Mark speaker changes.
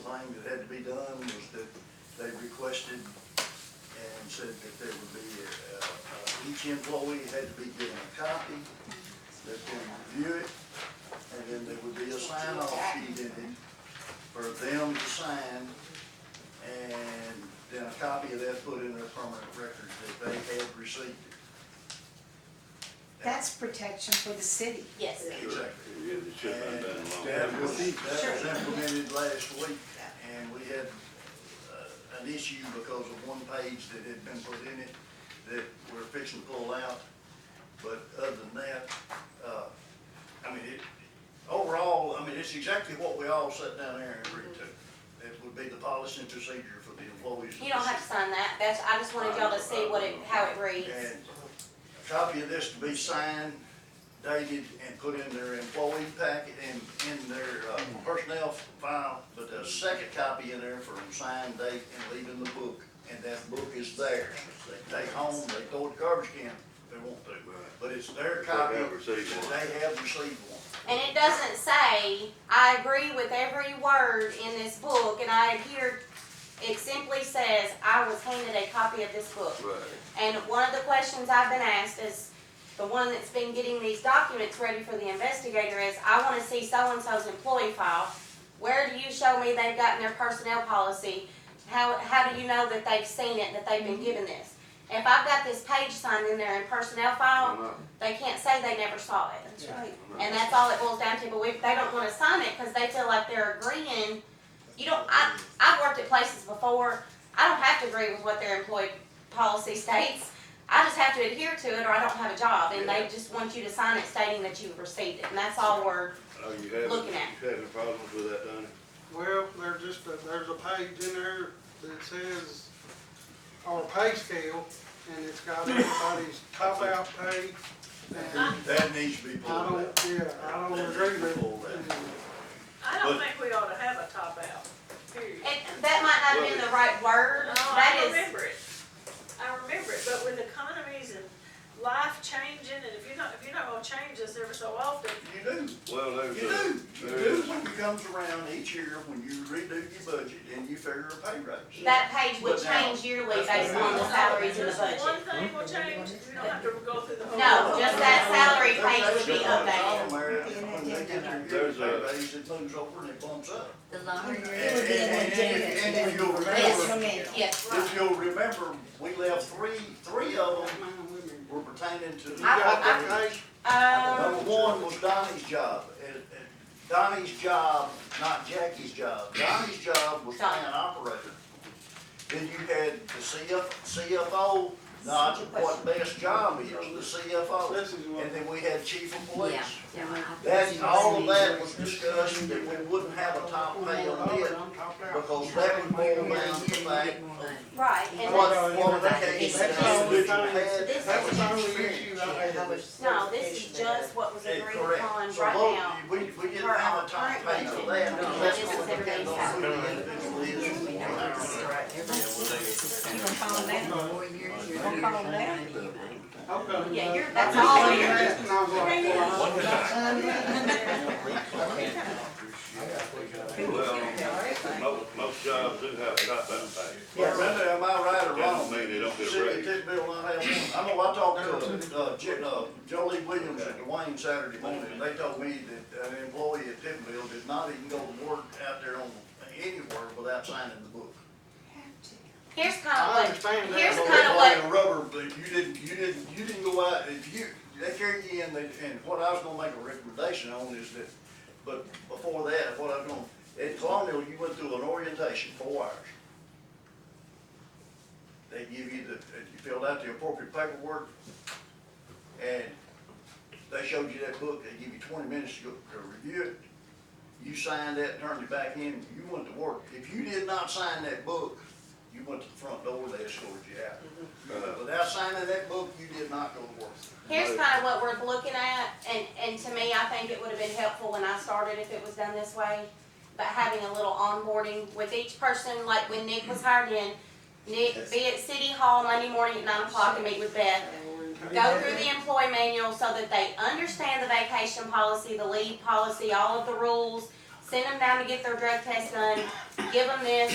Speaker 1: thing that had to be done was that they requested and said that there would be, uh, uh, each employee had to be given a copy, that they review it, and then there would be a sign-off sheet in it for them to sign, and then a copy of that put in their permanent records that they had received it.
Speaker 2: That's protection for the city.
Speaker 3: Yes.
Speaker 1: Exactly.
Speaker 4: Yeah, it should have been done long.
Speaker 1: That was,
Speaker 4: ago.
Speaker 1: that was implemented last week, and we had uh, an issue because of one page that had been put in it that we're fixing to pull out. But other than that, uh, I mean, it, overall, I mean, it's exactly what we all sat down there and agreed to. It would be the policy and procedure for the employees. of
Speaker 3: You don't
Speaker 1: the
Speaker 3: have to sign that, that's, I just wanted y'all to see what it, how it
Speaker 1: city.
Speaker 3: reads.
Speaker 1: And a copy of this to be signed, dated, and put in their employee packet and in their uh, personnel file, but a second copy in there for a signed date and leave in the book. And that book is theirs. They take home, they throw it in the garbage can if they want to, but it's their
Speaker 4: If they
Speaker 1: copy.
Speaker 4: have received one.
Speaker 1: They have received one.
Speaker 3: And it doesn't say, I agree with every word in this book and I adhere, it simply says, I was handed a copy of this book.
Speaker 4: Right.
Speaker 3: And one of the questions I've been asked is, the one that's been getting these documents ready for the investigator is, I wanna see so-and-so's employee file. Where do you show me they've gotten their personnel policy? How, how do you know that they've seen it, that they've been given this? If I've got this page signed in there in personnel
Speaker 4: I
Speaker 3: file,
Speaker 4: know,
Speaker 3: they can't say they never saw it.
Speaker 2: That's right.
Speaker 4: I know.
Speaker 3: And that's all it boils down to, but we, they don't wanna sign it, cause they feel like they're agreeing. You don't, I, I've worked at places before, I don't have to agree with what their employee policy states. I just have to adhere to it or I don't have a job, and they just want you to sign it stating that you've received it, and that's all we're,
Speaker 4: Are you having,
Speaker 3: Looking at.
Speaker 4: you having problems with that, Donnie?
Speaker 5: Well, there's just, a- there's a page in there that says, our pay scale, and it's got everybody's top out pay. And
Speaker 1: That needs to be
Speaker 5: I
Speaker 1: pulled out.
Speaker 5: don't, yeah, I don't agree with it.
Speaker 6: I
Speaker 1: But-
Speaker 6: don't think we ought to have a top out, period.
Speaker 3: it, that might not have been the right word,
Speaker 6: No,
Speaker 3: that
Speaker 6: Oh, I
Speaker 3: is,
Speaker 6: remember it. I remember it, but with economies and life changing, and if you're not, if you're not gonna change this every so often,
Speaker 1: You do.
Speaker 4: Well, there's
Speaker 1: You do,
Speaker 4: a,
Speaker 1: you
Speaker 4: there
Speaker 1: do
Speaker 4: is,
Speaker 1: when it comes around each year, when you redo your budget and you figure a pay raise.
Speaker 3: that page would
Speaker 1: But now-
Speaker 3: change yearly based on the salaries in the
Speaker 6: just
Speaker 3: budget.
Speaker 6: one thing will change, you don't have to go through the whole.
Speaker 3: No, just that salary page would be updated.
Speaker 1: When they get their yearly
Speaker 4: There's
Speaker 1: pay
Speaker 4: a-
Speaker 1: raise, it moves over and it bumps up.
Speaker 7: The longer you're
Speaker 1: And-
Speaker 2: It would be in
Speaker 1: and-
Speaker 2: the
Speaker 1: and if-
Speaker 2: data.
Speaker 1: and if you'll
Speaker 2: Yes,
Speaker 1: remember,
Speaker 2: remember.
Speaker 3: Yes,
Speaker 1: if you'll remember, we left three, three of them
Speaker 5: Man, women.
Speaker 1: were pertaining to the.
Speaker 5: You got
Speaker 3: I-
Speaker 5: that page?
Speaker 3: um,
Speaker 1: Number one was Donnie's job, and, and Donnie's job, not Jackie's job, Donnie's job was plant operator. Then you had the CF, CFO, not what best job is, the
Speaker 5: This
Speaker 1: CFO,
Speaker 5: is what,
Speaker 1: and then we had chief of police.
Speaker 7: Yeah. yeah, I think
Speaker 1: That,
Speaker 7: you
Speaker 1: all of
Speaker 7: see
Speaker 1: that
Speaker 7: where
Speaker 1: was discussed, that we wouldn't have a top pay on it,
Speaker 5: I'm top out.
Speaker 1: because that would boil down to the
Speaker 7: you get
Speaker 1: fact
Speaker 7: more
Speaker 1: of
Speaker 7: money.
Speaker 3: right, and
Speaker 1: what,
Speaker 3: that's,
Speaker 1: what that case, that individual had.
Speaker 3: This
Speaker 5: That was the only issue I had.
Speaker 7: How much
Speaker 3: No, this
Speaker 7: certification
Speaker 3: is
Speaker 7: they
Speaker 3: just
Speaker 7: have.
Speaker 3: what was
Speaker 1: Yeah,
Speaker 3: agreed
Speaker 1: correct.
Speaker 3: upon
Speaker 1: So
Speaker 3: right
Speaker 1: both-
Speaker 3: now.
Speaker 1: We, we didn't have a time pay for that,
Speaker 3: No.
Speaker 1: that's
Speaker 3: It's
Speaker 1: what we had
Speaker 3: everybody's
Speaker 1: on
Speaker 3: salary.
Speaker 1: the individual is.
Speaker 7: You gonna fall down in four years, you're gonna fall down anyway.
Speaker 5: I've got enough.
Speaker 3: Yeah, you're- that's
Speaker 5: I just
Speaker 3: all
Speaker 5: seen
Speaker 3: you're-
Speaker 5: that and I was like, well, I-
Speaker 4: well, most, most jobs do have top down pay.
Speaker 1: But Brenda, am I right or
Speaker 4: That
Speaker 1: wrong?
Speaker 4: don't mean they don't get a
Speaker 1: City of
Speaker 4: raise.
Speaker 1: Tippville, I have one. I know I talked to, uh, J- uh, Jolie Williams at Dwayne Saturday morning, and they told me that an employee at Tippville did not even go to work out there on, anywhere without signing the book.
Speaker 3: Here's
Speaker 5: I
Speaker 3: kind of what,
Speaker 5: understand that.
Speaker 3: Here's
Speaker 5: but-
Speaker 3: kind of what-
Speaker 1: Well, they wanted a Rubber, but you didn't, you didn't, you didn't go out, if you, they carried you in, they- and what I was gonna make a recommendation on is that, but before that, what I'm gonna, at Colonial, you went through an orientation, four hours. They give you the, you filled out the appropriate paperwork, and they showed you that book, they give you twenty minutes to go, to review it. You signed that, turned it back in, you went to work. If you did not sign that book, you went to the front door, they escorted you out. Uh, Without signing that book, you did not go to work.
Speaker 3: here's kind of what we're looking at, and, and to me, I think it would have been helpful when I started if it was done this way. But having a little onboarding with each person, like when Nick was hired in, Nick, be at City Hall Monday morning at nine o'clock and meet with Beth. go through the employee manual so that they understand the vacation policy, the leave policy, all of the rules. send them down to get their drug test done, give them this,